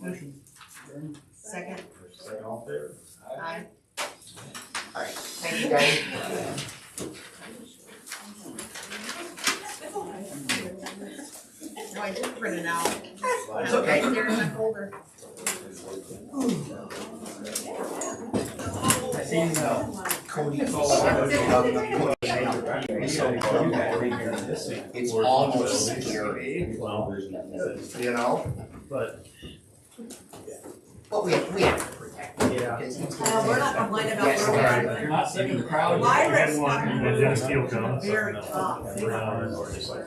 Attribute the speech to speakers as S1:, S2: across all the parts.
S1: Motion. adjourned.
S2: Second.
S3: Second all in favor?
S2: Aye.
S1: All right, thank you guys.
S2: No, I did print it out.
S1: It's okay.
S2: They're in my folder.
S1: I see uh, Cody's all worried about the push. It's almost scary, you know?
S3: But,
S1: But we have, we have to protect him
S3: yeah.
S1: because he's.
S2: Uh, we're not complaining about
S1: Yes,
S2: where we're at.
S1: right.
S4: You're not sick in the crowd.
S2: Lyra's not-
S4: One.
S3: And then Steele comes.
S2: Very tough.
S3: Brown or just like-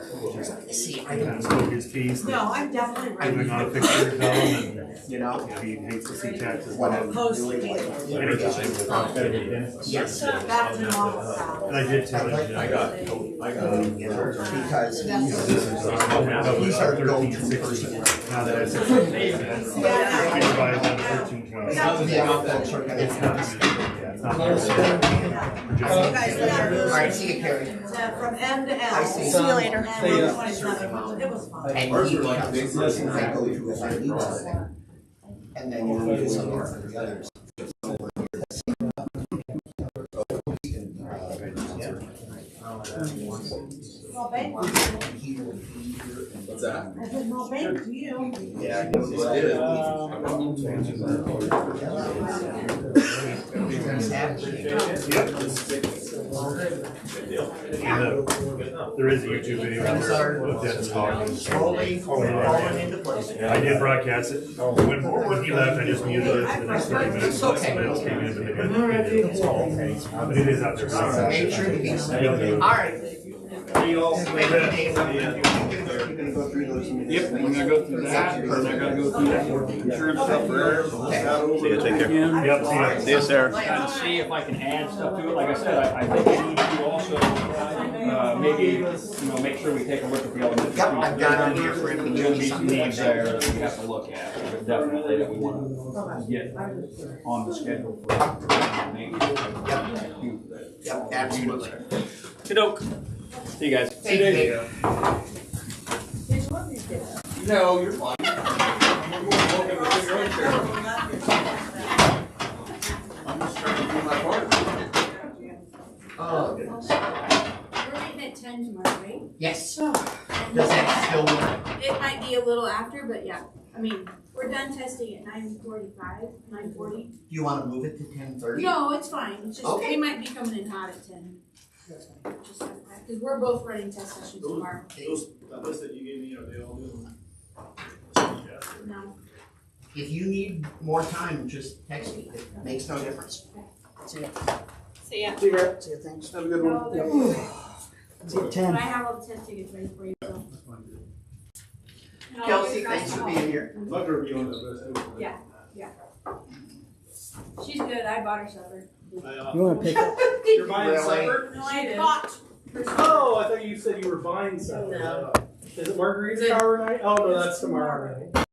S1: See, I
S3: Kind of
S1: don't,
S3: spoke his piece.
S2: No, I'm definitely
S3: Giving out
S2: right.
S3: pictures of him and,
S1: you know,
S3: you know, he hates to see taxes.
S1: what I'm
S2: Post
S1: really
S2: it.
S1: like.
S3: And it's just-
S1: Yes.
S2: That's an awesome.
S3: And I did tell him. you know,
S5: I got, I
S1: Um,
S5: got.
S1: you know, because
S2: That's-
S1: he's, he's our go-to
S3: 1360.
S1: person.
S3: Now that I said. I can buy another 1320.
S2: Yeah.
S3: Yeah, it's not fair.
S2: You guys got
S1: All
S2: really-
S1: right, see you, Carrie.
S2: Uh, From end to end.
S1: I see.
S2: See you later. And
S5: See ya.
S2: one twenty-seven, it was fun.
S1: And he becomes the person I go to if I need something. And then you move some more for the others.
S2: Well, thank you.
S5: What's that?
S2: I said, well, thank you.
S5: Yeah. I did.
S3: There is a YouTube video. out there of Dennis Hawkins.
S1: Slowly falling into place.
S3: I did broadcast it.
S1: Oh.
S3: When, when he left, I just muted it for the next thirty minutes.
S1: It's okay.
S3: Somebody else came in, but they didn't- they didn't call. But it is out there.
S1: So make sure to be. All right.
S4: Yep, we're gonna go through that, and then I gotta go through that insurance stuff for
S5: See you, take care.
S4: again.
S3: Yep, see ya.
S5: See you, Sarah.
S4: And see if I can add stuff to it, like I said, I, I think we need to also, uh, maybe, you know, make sure we take a look at the elementary.
S1: Yep, I've got it here for him to
S4: There's gonna
S1: do
S4: be some needs
S1: something.
S4: there that we have to look at, but definitely that we wanna get on the schedule for.
S1: Yep, absolutely.
S4: Kidok. See you guys.
S1: Thank you.
S4: No, you're fine. Welcome to your own chair. I'm just trying to do my part.
S1: Oh,
S6: We're meeting at ten tomorrow, right?
S1: yes.
S6: And
S1: Does that still work?
S6: It might be a little after, but yeah, I mean, we're done testing at nine forty-five, nine forty.
S1: Do you want to move it to ten thirty?
S6: No, it's fine, it's just,
S1: Okay.
S6: they might be coming in hot at ten. Just like that, Cause we're both running test sessions tomorrow,
S7: That list that you gave me, are they all doing?
S6: no,
S1: If you need more time, just text me. It makes no difference.
S6: so yeah,
S7: See you, thanks. Have a good one.
S6: but I have all the test tickets ready for you, so. And I'll
S1: Kelsey,
S6: leave you guys
S1: thanks for
S6: home.
S1: being here.
S7: Love to be on that list.
S6: Yeah. She's good, I bought her supper.
S7: I, uh,
S8: You wanna pick up?
S7: You're buying
S1: Really?
S7: supper?
S6: No, I bought her supper.
S7: Oh, I thought you said you were buying supper.
S2: No.
S7: Is it margarita hour night? Oh, no, that's tomorrow night.